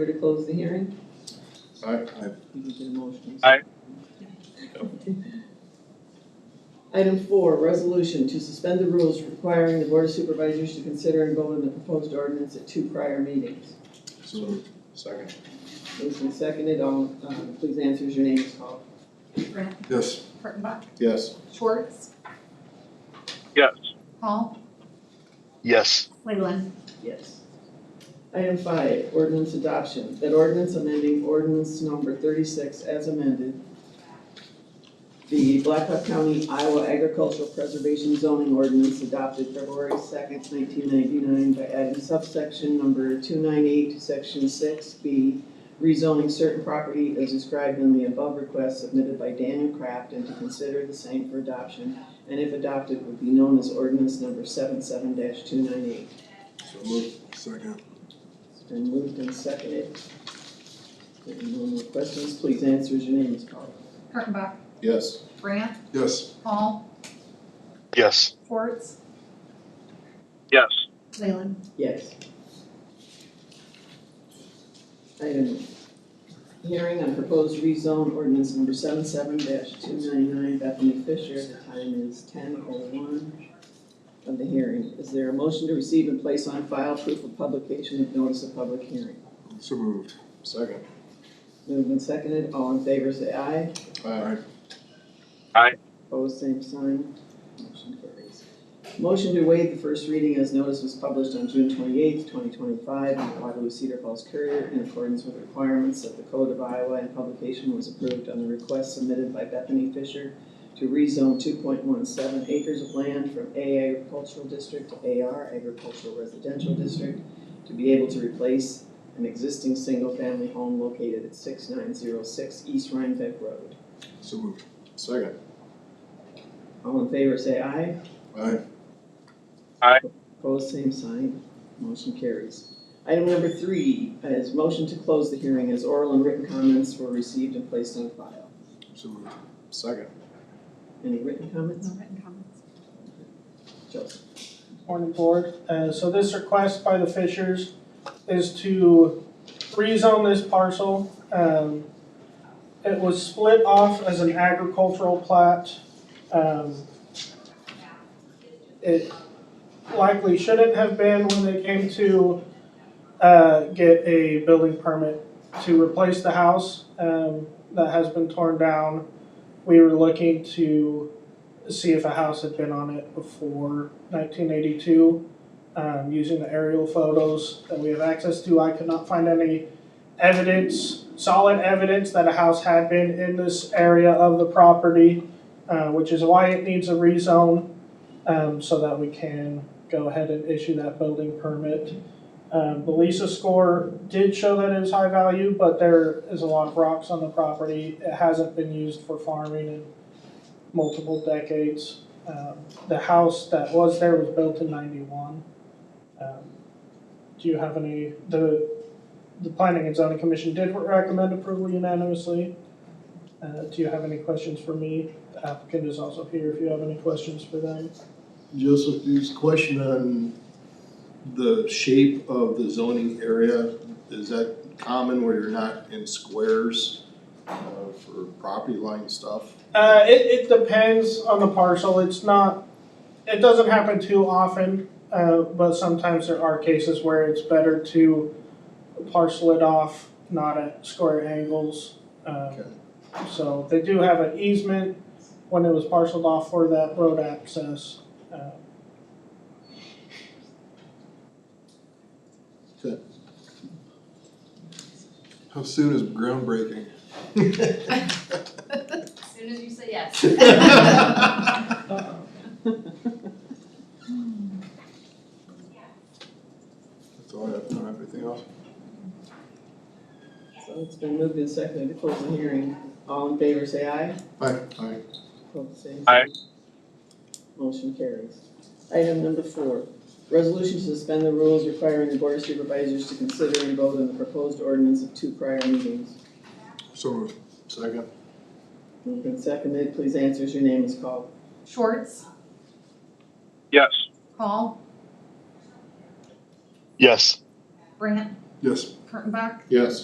to close the hearing? Aye. You can get a motion. Aye. Item four, resolution to suspend the rules requiring the board of supervisors to consider and vote on the proposed ordinance at two prior meetings. So moved. Second. Moved and seconded, all, um, please answer as your name is called. Grant, Yes. Kurttenbach, Yes. Schwartz, Yes. Hall, yes, Leyland. Yes. Item five, ordinance adoption, that ordinance amending ordinance number thirty-six as amended, the Blackhawk County Iowa Agricultural Preservation Zoning Ordinance adopted February second, nineteen ninety-nine by adding subsection number two nine eight to section six B, rezoning certain property as described in the above request submitted by Daniel Kraft and to consider the same for adoption, and if adopted, would be known as ordinance number seven two nine eight. So moved. Second. It's been moved and seconded. If no more questions, please answer as your name is called. Kurttenbach, Yes. Grant, Yes. Hall, yes, Schwartz, Yes. Leyland. Yes. Item, hearing on proposed rezone ordinance number seven two ninety-nine, Bethany Fisher. The time is ten oh one of the hearing. Is there a motion to receive and place on file proof of publication of notice of public hearing? So moved. Second. Moved and seconded, all in favor say aye. Aye. Opposed, same sign. Motion carries. Motion to waive the first reading as notice was published on June twenty-eighth, twenty twenty-five in the Waterloo Cedar Falls Courier in accordance with requirements of the Code of Iowa and publication was approved on the request submitted by Bethany Fisher to rezone two point one seven acres of land from A agricultural district to AR agricultural residential district to be able to replace an existing single-family home located at six nine zero six East Rhinebeck Road. So moved. Second. All in favor, say aye. Aye. Opposed, same sign. Motion carries. Item number three is motion to close the hearing as oral and written comments were received and placed on file. So moved. Second. Any written comments? No written comments. Joseph? Morning, Board. Uh, So this request by the Fishers is to rezone this parcel. Um, It was split off as an agricultural plat. Um, It likely shouldn't have been when they came to uh, get a building permit to replace the house um, that has been torn down. We were looking to see if a house had been on it before 1982. Um, using the aerial photos that we have access to, I could not find any evidence, solid evidence that a house had been in this area of the property, uh, which is why it needs a rezone, um, so that we can go ahead and issue that building permit. Um, the Lisa score did show that it is high value, but there is a lot of rocks on the property. It hasn't been used for farming and multiple decades. Um, The house that was there was built in ninety-one. Um, Do you have any, the, the planning and zoning commission did recommend approval unanimously. Uh, Do you have any questions for me? The applicant is also here if you have any questions for them. Joseph, there's a question on the shape of the zoning area. Is that common where you're not in squares uh, for property line stuff? Uh, it, it depends on the parcel, it's not, it doesn't happen too often, uh, but sometimes there are cases where it's better to parcel it off, not at square angles. Okay. Um, so they do have an easement when it was parceled off for that road access. Uh, How soon is groundbreaking? As soon as you say yes. That's all I have. Not everything else. So it's been moved and seconded to close the hearing. All in favor, say aye. Aye. Aye. Opposed, same sign. Aye. Motion carries. Item number four, resolution to suspend the rules requiring the board of supervisors to consider and vote on the proposed ordinance of two prior meetings. So moved. Second. Moved and seconded, please answer as your name is called. Schwartz, Yes. Hall, yes, Grant, Yes. Kurttenbach? Yes.